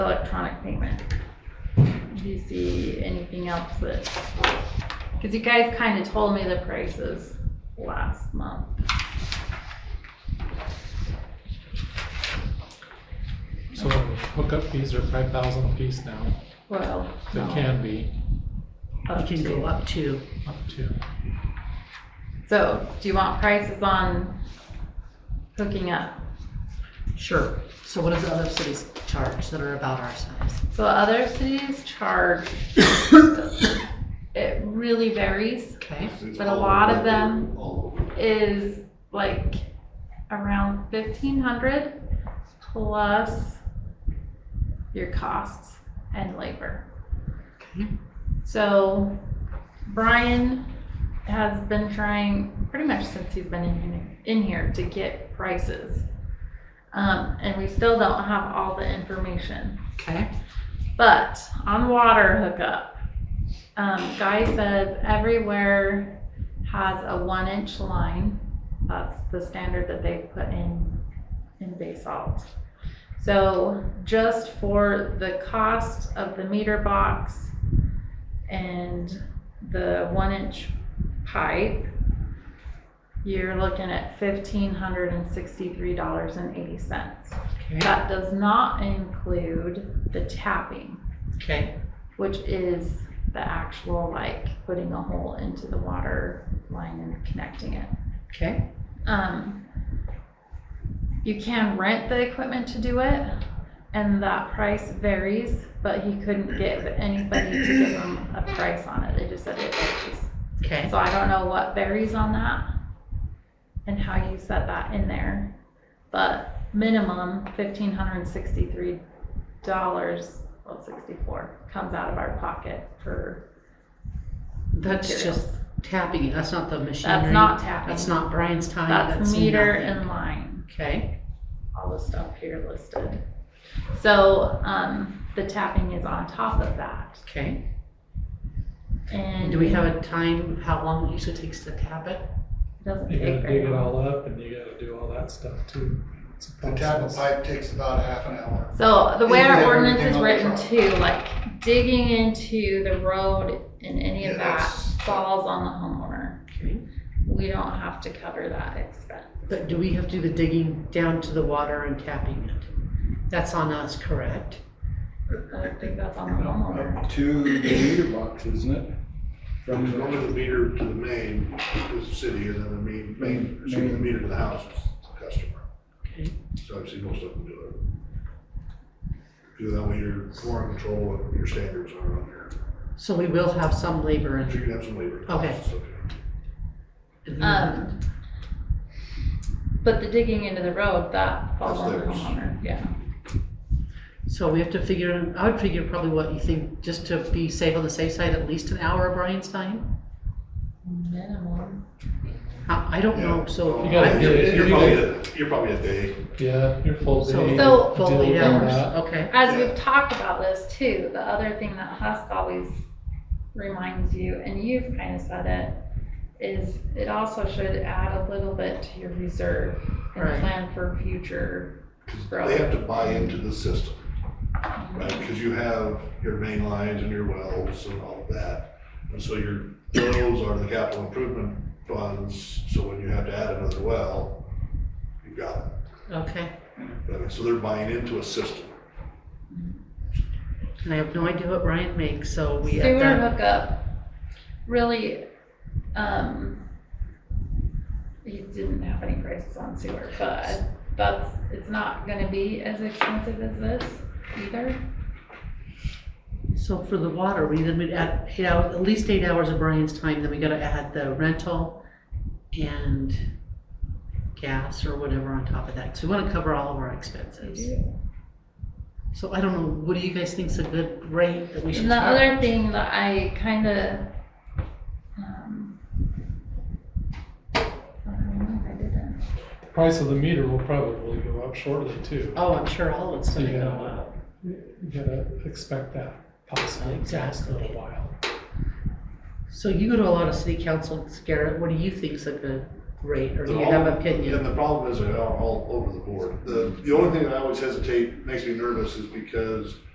electronic payment. Do you see anything else that, because you guys kind of told me the prices last month. So hookup fees are five thousand a piece now, Well, they no, can be up You can to. go up to, up to, So do you want prices on hooking up? sure. So what does other cities charge that are about our size? So other cities charge, it really varies. Okay, But a lot of them is like around fifteen hundred plus your costs and labor. Okay. So Brian has been trying pretty much since he's been in, in here to get prices. Um, and we still don't have all the information. okay. But on water hookup, um, Guy says everywhere has a one inch line. That's the standard that they put in, in basalt. So just for the cost of the meter box and the one inch pipe, you're looking at fifteen hundred and sixty-three dollars and eighty cents. Okay. That does not include the tapping, Okay. which is the actual like putting a hole into the water line and connecting it. Okay. Um, you can rent the equipment to do it, and that price varies, but he couldn't get anybody to give him a price on it. They just said it varies. Okay. So I don't know what varies on that and how you set that in there, but minimum fifteen hundred and sixty-three dollars, well, sixty-four, comes out of our pocket for That's materials. just tapping. it. That's not the machinery. That's not tapping, That's not Brian's time. that's meter nothing. and line, Okay. all the stuff here listed. So, um, the tapping is on top of that Okay. and. And do we have a time, of how long it usually takes to tap it? it Doesn't you take gotta dig very it long. all up and you gotta do all that stuff too. It's a The tap of process. pipe takes about a half an hour. So the way And our you have ordinance is everything written on the too, like digging into the road and any of Yeah, that that's- falls on the homeowner. Okay. We don't have to cover that expense. But do we have to do the digging down to the water and tapping it? That's on us, correct? I don't think that's on the homeowner. Up to the meter box, isn't it? From the moment the meter to the main, is the city, and then the main, main, excuse me, the meter to the house is the customer. Okay. So obviously, most of them do it. Because that way you're more in control of what your standards are on there. So we will have some labor So and. you can have some labor. Okay. Um, but the digging into the road, that falls on the That's theirs. homeowner, yeah. So we have to figure, I would figure probably what you think, just to be safe on the safe side, at least an hour of Brian's time? Minimum. I, I don't know, so. You gotta do it. You're probably, at- you're probably a day. Yeah, your full So- day. So- deal Full with eight all hours, that. okay, As we've talked about this too, the other thing that Husk always reminds you, and you've kind of said it, is it also should add a little bit to your reserve Right. and plan for future They growth. have to buy into the system, right? Because you have your main lines and your wells and all of that. And so your wells are the capital improvement funds, so when you have to add another well, you've got it. okay. But, So they're buying into a system. And I have no idea what Brian makes, so we have Sewer that, hookup, really, um, you didn't have any prices on sewer, but that's, it's not gonna be as expensive as this either. so for the water, we then would add eight hours, at least eight hours of Brian's time, then we gotta add the rental and gas or whatever on top of that, so we wanna cover all of our expenses. So I don't know, what do you guys think's a good rate that we should And the charge? other thing that I kind of, um, I don't know, I didn't. The Price of the meter will probably go up shortly too. Oh, I'm sure all of it's gonna Yeah. go up. You gotta expect that possibly. It's gonna take Exactly. A while. So you go to a lot of city councils, Garrett, what do you think's a good rate, or do you They're have all- an opinion? And the problem is they're all, all over the board. The, the only thing that I always hesitate, makes me nervous is because